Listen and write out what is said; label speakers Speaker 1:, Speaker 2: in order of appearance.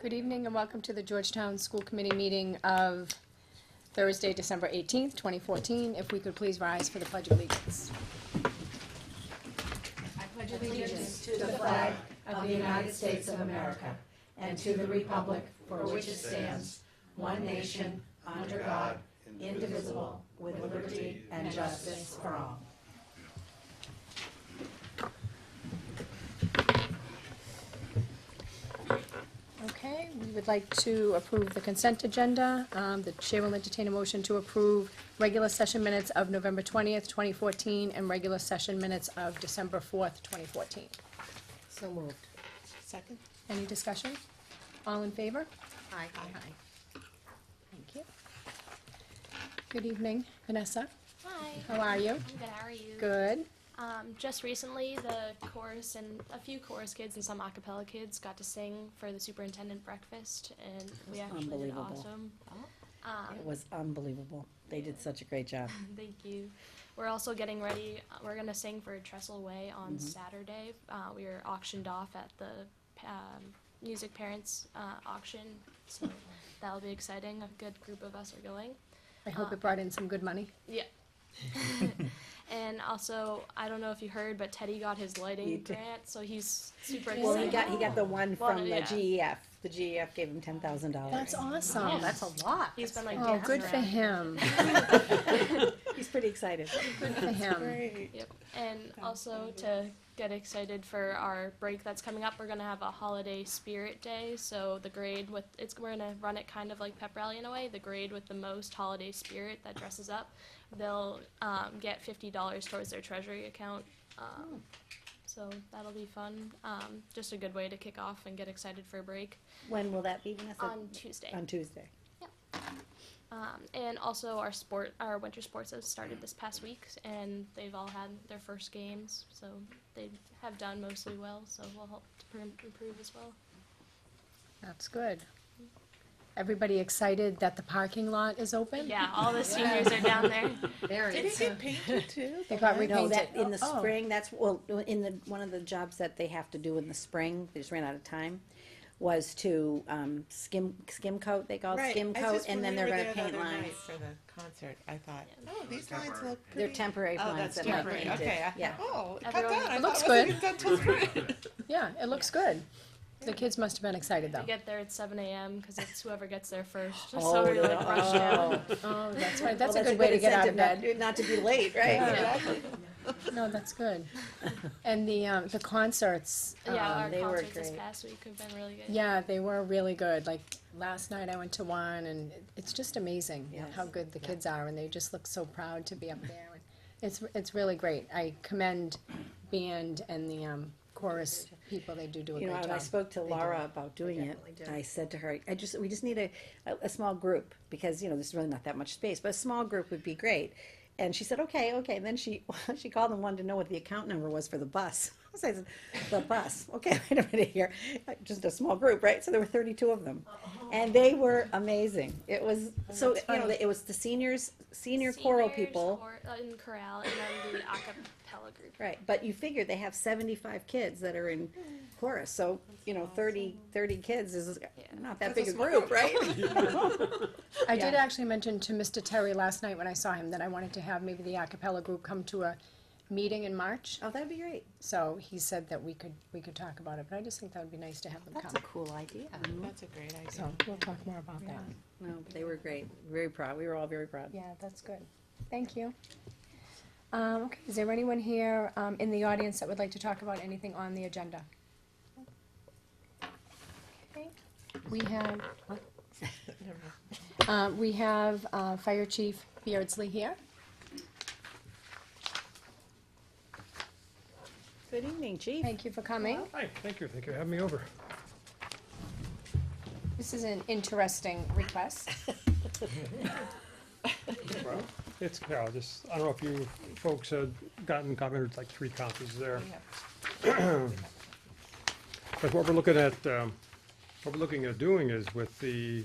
Speaker 1: Good evening and welcome to the Georgetown School Committee meeting of Thursday, December 18th, 2014. If we could please rise for the Pledge of Allegiance.
Speaker 2: allegiance to the flag of the United States of America and to the republic for which it stands, one nation, under God, indivisible, with liberty and justice for all.
Speaker 1: Okay, we would like to approve the consent agenda. Um, The chair will entertain a motion to approve regular session minutes of November 20th, 2014, and regular session minutes of December 4th, 2014.
Speaker 3: So moved.
Speaker 1: Second. Any discussion? All in favor?
Speaker 3: Aye.
Speaker 1: Thank you. Good evening, Vanessa.
Speaker 4: Hi.
Speaker 1: How are you?
Speaker 4: I'm good. How are you?
Speaker 1: Good.
Speaker 4: Um, just recently, the chorus and a few chorus kids and some a cappella kids got to sing for the superintendent breakfast, and we
Speaker 3: That's
Speaker 4: actually did
Speaker 3: unbelievable.
Speaker 4: awesome.
Speaker 3: It
Speaker 4: Um,
Speaker 3: was unbelievable. They did such a great job.
Speaker 4: thank you. We're also getting ready. uh, We're gonna sing for Trestle Way
Speaker 3: Mm-hmm.
Speaker 4: on Saturday. Uh, we were auctioned off at the um, music parents uh, auction, so that'll be exciting. A good group of us are going.
Speaker 1: I hope it brought in some good money.
Speaker 4: Yeah. and also, I don't know if you heard, but Teddy got his
Speaker 3: He
Speaker 4: lighting
Speaker 3: did.
Speaker 4: grant, so he's super excited.
Speaker 3: Well, he got, he got the one
Speaker 4: Well,
Speaker 3: from the
Speaker 4: yeah.
Speaker 3: GEF. The GEF gave him ten thousand dollars.
Speaker 1: That's awesome.
Speaker 4: Yes.
Speaker 1: Oh, That's a lot.
Speaker 4: He's been like,
Speaker 1: Oh,
Speaker 4: dancing
Speaker 1: good for
Speaker 4: around.
Speaker 1: him.
Speaker 3: He's pretty excited.
Speaker 1: Good for him.
Speaker 4: Yep. And also to get excited for our break that's coming up, we're gonna have a holiday spirit day. So the grade with it's we're gonna run it kind of like pep rally in a way. The grade with the most holiday spirit that dresses up, they'll um, get fifty dollars towards their treasury account. Um, so that'll be fun. Um, just a good way to kick off and get excited for a break
Speaker 3: When will that be, Vanessa?
Speaker 4: on Tuesday.
Speaker 3: On Tuesday.
Speaker 4: Um, and also our sport, our winter sports have started this past week, and they've all had their first games, so they have done mostly well. So we'll help to pr- improve as well.
Speaker 1: That's good. Everybody excited that the parking lot is open?
Speaker 4: Yeah, all the seniors are down there.
Speaker 5: Did it get painted too?
Speaker 1: They got
Speaker 3: No,
Speaker 1: repainted.
Speaker 3: that, in the
Speaker 1: Oh.
Speaker 3: spring, that's, well, in the, one of the jobs that they have to do in the spring, they just ran out of time, was to, um, skim, skim coat, they call it
Speaker 5: Right.
Speaker 3: skim
Speaker 5: I
Speaker 3: coat,
Speaker 5: just-
Speaker 3: and
Speaker 5: when
Speaker 3: then
Speaker 5: we
Speaker 3: they're
Speaker 5: were
Speaker 3: gonna
Speaker 5: there the
Speaker 3: paint
Speaker 5: other
Speaker 3: lines.
Speaker 5: night For the concert, I thought, oh, these lines
Speaker 6: Temporary.
Speaker 5: look
Speaker 3: They're
Speaker 5: pretty.
Speaker 3: temporary
Speaker 5: Oh,
Speaker 3: lines
Speaker 5: that's
Speaker 3: that might
Speaker 5: temporary,
Speaker 3: paint
Speaker 5: okay, I
Speaker 3: it, yeah.
Speaker 5: thought, oh, cut
Speaker 4: Everyone-
Speaker 5: that, I
Speaker 1: It
Speaker 5: thought
Speaker 1: looks
Speaker 5: it wasn't
Speaker 1: good.
Speaker 5: done till spring.
Speaker 1: Yeah, it looks good. The kids must have been excited
Speaker 4: We
Speaker 1: though.
Speaker 4: get there at 7 a.m. because it's whoever gets there first. So
Speaker 3: Oh,
Speaker 4: we're like
Speaker 3: yeah.
Speaker 4: rushed out.
Speaker 1: Oh, that's right. That's a
Speaker 3: Well,
Speaker 1: good way to get out of
Speaker 3: incentive
Speaker 1: bed.
Speaker 3: not- Not to be late, right?
Speaker 5: Exactly.
Speaker 1: No, that's good. And the, um, the concerts.
Speaker 4: yeah,
Speaker 1: um,
Speaker 4: our
Speaker 3: Oh. they were
Speaker 4: concerts this
Speaker 3: great.
Speaker 4: past week have been really good.
Speaker 1: Yeah, they were really good. Like last night I went to one and it- it's just amazing
Speaker 3: Yes.
Speaker 1: how good the kids are and they just look so proud to be up there. And It's, it's really great. I commend band and the um, chorus people. They do do a
Speaker 3: You know,
Speaker 1: great
Speaker 3: when I
Speaker 1: job.
Speaker 3: spoke to Laura about doing it, I said to her, I just, we just need a, a, a small group, because, you know, there's really not that much space, but a small group would be great. And she said, okay, okay, and then she, she called and wanted to know what the account number was for the bus. So I said, the bus, okay, wait a minute here, just a small group, right? So there were thirty-two of them,
Speaker 4: Uh-huh.
Speaker 3: and they were amazing. It was, so, you know, it was the seniors, senior choral
Speaker 4: Seniors,
Speaker 3: people.
Speaker 4: chor- uh, in chorale, and then the a cappella group.
Speaker 3: Right, but you figure they have seventy-five kids that are in chorus, so, you know, 30 30 kids is not that
Speaker 5: That's a
Speaker 3: big a
Speaker 5: small
Speaker 3: group, right?
Speaker 1: I did
Speaker 3: Yeah.
Speaker 1: actually mention to Mr. Terry last night when I saw him that I wanted to have maybe the a cappella group come to a meeting in March.
Speaker 3: Oh, that'd be great.
Speaker 1: So he said that we could, we could talk about it, but I just think that would be nice to have them come.
Speaker 3: cool idea.
Speaker 5: That's a great idea.
Speaker 1: So we'll talk more about that.
Speaker 3: No, but they were great, very proud, we were all very proud.
Speaker 1: Yeah, that's good. Thank you. Um, okay, is there anyone here, um, in the audience that would like to talk about anything on the agenda? Okay, We have,
Speaker 5: Never mind.
Speaker 1: uh, we have, uh, Fire Chief Beardsley here.
Speaker 3: Good evening, chief.
Speaker 1: Thank you for coming.
Speaker 6: Hi, thank you, thank you for having me over.
Speaker 1: This is an interesting request.
Speaker 6: It's Carol, just, I don't know if you folks had gotten, got rid of like three copies there. But what we're looking at, um, what we're looking at doing is with the